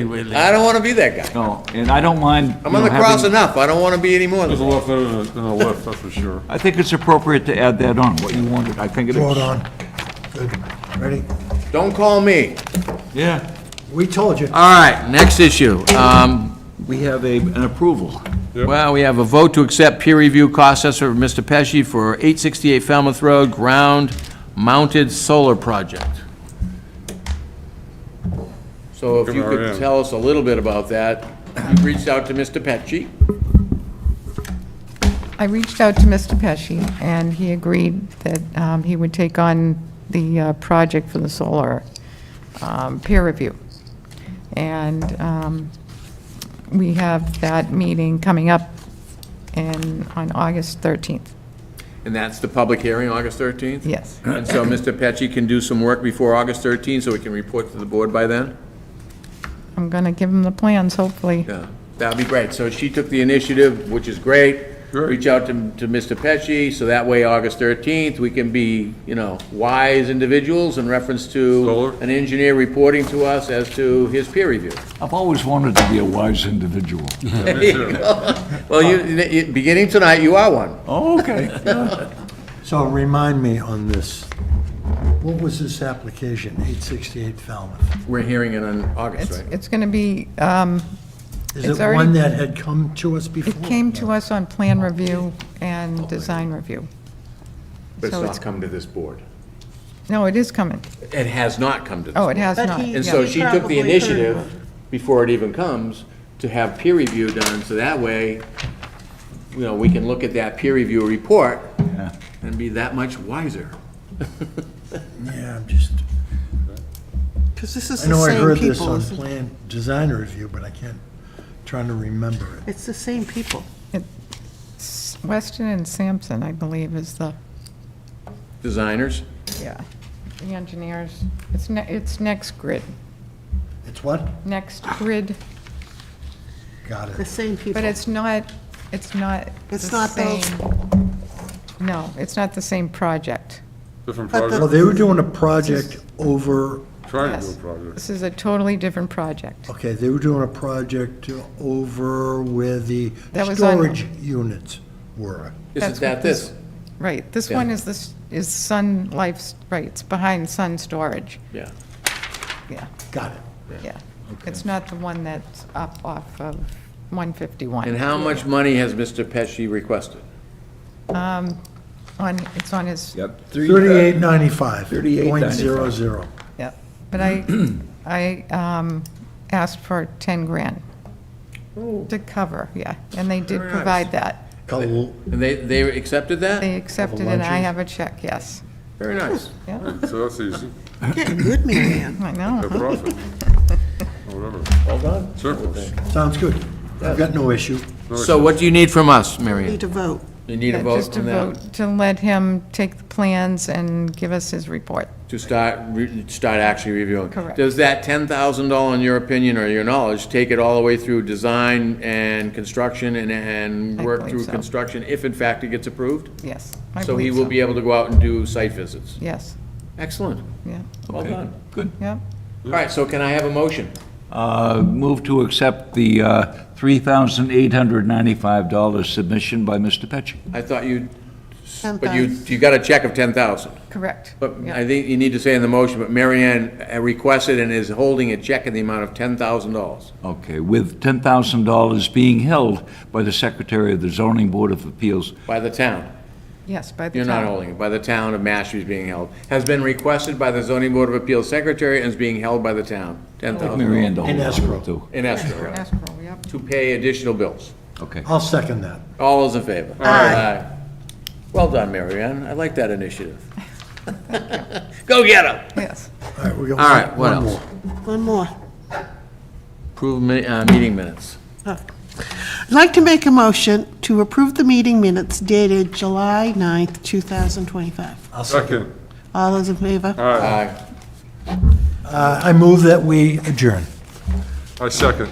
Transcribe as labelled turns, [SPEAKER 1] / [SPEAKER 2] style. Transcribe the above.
[SPEAKER 1] anyway. like-
[SPEAKER 2] I don't want to be that guy.
[SPEAKER 3] No, and I don't mind.
[SPEAKER 2] I'm
[SPEAKER 3] you
[SPEAKER 2] on
[SPEAKER 3] know,
[SPEAKER 2] the cross
[SPEAKER 3] having-
[SPEAKER 2] enough. I don't want to be any more than
[SPEAKER 4] There's a
[SPEAKER 2] that.
[SPEAKER 4] lot better than than a left, that's for sure.
[SPEAKER 3] I think it's appropriate to add that on, what you wanted. I think it is.
[SPEAKER 5] Hold on. Good. Ready?
[SPEAKER 2] Don't call me.
[SPEAKER 3] Yeah.
[SPEAKER 5] We told you.
[SPEAKER 2] All right, next issue. Um,
[SPEAKER 3] We have a, an approval.
[SPEAKER 2] Well, we have a vote to accept peer review cost assessor of Mr. Pesci for 868 Falmouth Road ground-mounted solar project. So if you could
[SPEAKER 4] MRM.
[SPEAKER 2] tell us a little bit about that, you reached out to Mr. Pesci.
[SPEAKER 6] I reached out to Mr. Pesci, and he agreed that um, he would take on the uh, project for the solar um, peer review. And um, we have that meeting coming up in, on August 13th,
[SPEAKER 2] And that's the public hearing, August 13th?
[SPEAKER 6] yes.
[SPEAKER 2] And so Mr. Pesci can do some work before August 13th, so he can report to the board by then?
[SPEAKER 6] I'm going to give him the plans, hopefully.
[SPEAKER 2] Yeah, that'd be great. So she took the initiative, which is great.
[SPEAKER 4] Great.
[SPEAKER 2] Reach out to, to Mr. Pesci, so that way, August 13th, we can be, you know, wise individuals in reference
[SPEAKER 4] Solar.
[SPEAKER 2] to an engineer reporting to us as to his peer review.
[SPEAKER 3] I've always wanted to be a wise individual.
[SPEAKER 2] There you go. Well, you, you- beginning tonight, you are one.
[SPEAKER 3] Oh, okay.
[SPEAKER 5] So remind me on this. What was this application, 868 Falmouth?
[SPEAKER 2] We're hearing it on August,
[SPEAKER 6] It's,
[SPEAKER 2] right?
[SPEAKER 6] it's going to be, um,
[SPEAKER 5] Is
[SPEAKER 6] It's
[SPEAKER 5] it
[SPEAKER 6] already-
[SPEAKER 5] one that had come to us before?
[SPEAKER 6] it came to us on plan review
[SPEAKER 2] Oh,
[SPEAKER 6] and design review.
[SPEAKER 7] But it's
[SPEAKER 6] So
[SPEAKER 7] not
[SPEAKER 6] it's-
[SPEAKER 7] come to this board.
[SPEAKER 6] No, it is coming.
[SPEAKER 2] It has not come to this.
[SPEAKER 6] Oh, it has
[SPEAKER 8] But
[SPEAKER 6] not.
[SPEAKER 8] he-
[SPEAKER 2] And
[SPEAKER 6] yeah.
[SPEAKER 2] so she took
[SPEAKER 8] Probably
[SPEAKER 2] the
[SPEAKER 8] heard
[SPEAKER 2] initiative
[SPEAKER 8] of
[SPEAKER 2] before it even comes to have peer review done, so that way, you know, we can look at that peer review report and be that much wiser.
[SPEAKER 5] Yeah, I'm just,
[SPEAKER 8] Because this is
[SPEAKER 5] I
[SPEAKER 8] the
[SPEAKER 5] know I
[SPEAKER 8] same
[SPEAKER 5] heard this
[SPEAKER 8] people.
[SPEAKER 5] on
[SPEAKER 8] isn't it?
[SPEAKER 5] plan design review, but I can't, trying to remember it.
[SPEAKER 8] It's the same people.
[SPEAKER 6] It's Weston and Sampson, I believe, is the,
[SPEAKER 2] Designers,
[SPEAKER 6] yeah, the engineers. It's, ne- it's Next Grid,
[SPEAKER 5] It's what?
[SPEAKER 6] Next Grid,
[SPEAKER 5] Got
[SPEAKER 8] The
[SPEAKER 5] it.
[SPEAKER 8] same people.
[SPEAKER 6] but it's not, it's not the
[SPEAKER 8] It's not those-
[SPEAKER 6] same. No, it's not the same project.
[SPEAKER 4] Different
[SPEAKER 8] But the-
[SPEAKER 4] project,
[SPEAKER 5] Well, they were doing a project over,
[SPEAKER 4] trying to do a
[SPEAKER 6] Yes.
[SPEAKER 4] project.
[SPEAKER 6] This is a totally different project.
[SPEAKER 5] okay, they were doing a project over where the
[SPEAKER 6] That was on-
[SPEAKER 5] storage units were.
[SPEAKER 2] isn't
[SPEAKER 6] That's
[SPEAKER 2] that
[SPEAKER 6] what
[SPEAKER 2] this?
[SPEAKER 6] Right, this one is this, is Sun Life's, right, it's behind Sun Storage,
[SPEAKER 2] Yeah.
[SPEAKER 6] yeah,
[SPEAKER 5] Got it.
[SPEAKER 6] yeah. It's not the one that's up off of 151.
[SPEAKER 2] And how much money has Mr. Pesci requested?
[SPEAKER 6] On, it's on his
[SPEAKER 3] Yep.
[SPEAKER 5] 3895.
[SPEAKER 3] 38.95.
[SPEAKER 5] 0.00.
[SPEAKER 6] Yeah, but I, I um, asked for 10 grand to cover, yeah, and they did
[SPEAKER 2] Very nice.
[SPEAKER 6] provide that.
[SPEAKER 5] Couple-
[SPEAKER 2] And they, they accepted that?
[SPEAKER 6] They accepted it, and I
[SPEAKER 5] luncheon?
[SPEAKER 6] have a check, yes.
[SPEAKER 2] Very nice.
[SPEAKER 6] Yeah,
[SPEAKER 4] So that's easy,
[SPEAKER 8] Getting good, Mary Ann.
[SPEAKER 6] I know.
[SPEAKER 4] no
[SPEAKER 6] huh?
[SPEAKER 4] profit. Or Whatever,
[SPEAKER 2] Well done.
[SPEAKER 4] surplus.
[SPEAKER 5] Sounds good. I've got no issue.
[SPEAKER 2] So what do you need from us, Mary?
[SPEAKER 8] Need to vote.
[SPEAKER 2] You need a
[SPEAKER 6] Yeah,
[SPEAKER 2] vote
[SPEAKER 6] Just to
[SPEAKER 2] from them?
[SPEAKER 6] vote, to let him take the plans and give us his report.
[SPEAKER 2] To start, re- start actually reviewing.
[SPEAKER 6] Correct.
[SPEAKER 2] Does that $10,000, in your opinion or your knowledge, take it all the way through design and construction and, and
[SPEAKER 6] I
[SPEAKER 2] work
[SPEAKER 6] believe
[SPEAKER 2] through
[SPEAKER 6] so.
[SPEAKER 2] construction, if in fact it gets approved?
[SPEAKER 6] Yes, I
[SPEAKER 2] So he
[SPEAKER 6] believe
[SPEAKER 2] will be able to go out and do site visits?
[SPEAKER 6] Yes,
[SPEAKER 2] Excellent.
[SPEAKER 6] yeah,
[SPEAKER 3] uh,
[SPEAKER 2] Well done.
[SPEAKER 3] Good.
[SPEAKER 6] yeah.
[SPEAKER 2] All right, so can I have a motion?
[SPEAKER 3] Uh, Move to accept the uh, $3,895 submission by Mr. Petchy.
[SPEAKER 2] I thought you, but you, you got a check of 10,000.
[SPEAKER 6] correct.
[SPEAKER 2] But
[SPEAKER 6] yeah.
[SPEAKER 2] I think you need to say in the motion, but Mary Ann uh, requested and is holding a check in the amount of $10,000.
[SPEAKER 3] Okay, with $10,000 being held by the Secretary of the Zoning Board of Appeals.
[SPEAKER 2] By the town.
[SPEAKER 6] Yes, by the
[SPEAKER 2] You're
[SPEAKER 6] time.
[SPEAKER 2] not holding it, by the town of Mashpee is being held. Has been requested by the zoning board of appeals secretary and is being held by the town.
[SPEAKER 3] Mary
[SPEAKER 2] $10,000
[SPEAKER 3] Ann to hold on
[SPEAKER 5] In
[SPEAKER 3] to
[SPEAKER 5] escrow.
[SPEAKER 3] it, too.
[SPEAKER 2] in escrow, right,
[SPEAKER 6] Escrow, yep.
[SPEAKER 2] to pay additional bills.
[SPEAKER 3] Okay.
[SPEAKER 5] I'll second that.
[SPEAKER 2] All those in favor?
[SPEAKER 8] Aye.
[SPEAKER 2] Well done, Mary Ann. I like that initiative. Go get 'em.
[SPEAKER 6] yes.
[SPEAKER 5] All right, we got
[SPEAKER 2] All right,
[SPEAKER 5] one-
[SPEAKER 2] what
[SPEAKER 5] one
[SPEAKER 2] else?
[SPEAKER 5] more.
[SPEAKER 8] One more.
[SPEAKER 2] Approve mi- uh, meeting minutes.
[SPEAKER 8] I'd like to make a motion to approve the meeting minutes dated July 9th, 2025.
[SPEAKER 5] I'll second.
[SPEAKER 4] Second,
[SPEAKER 8] All those in favor?
[SPEAKER 2] Aye.
[SPEAKER 5] Uh, I move that we adjourn.
[SPEAKER 4] I second.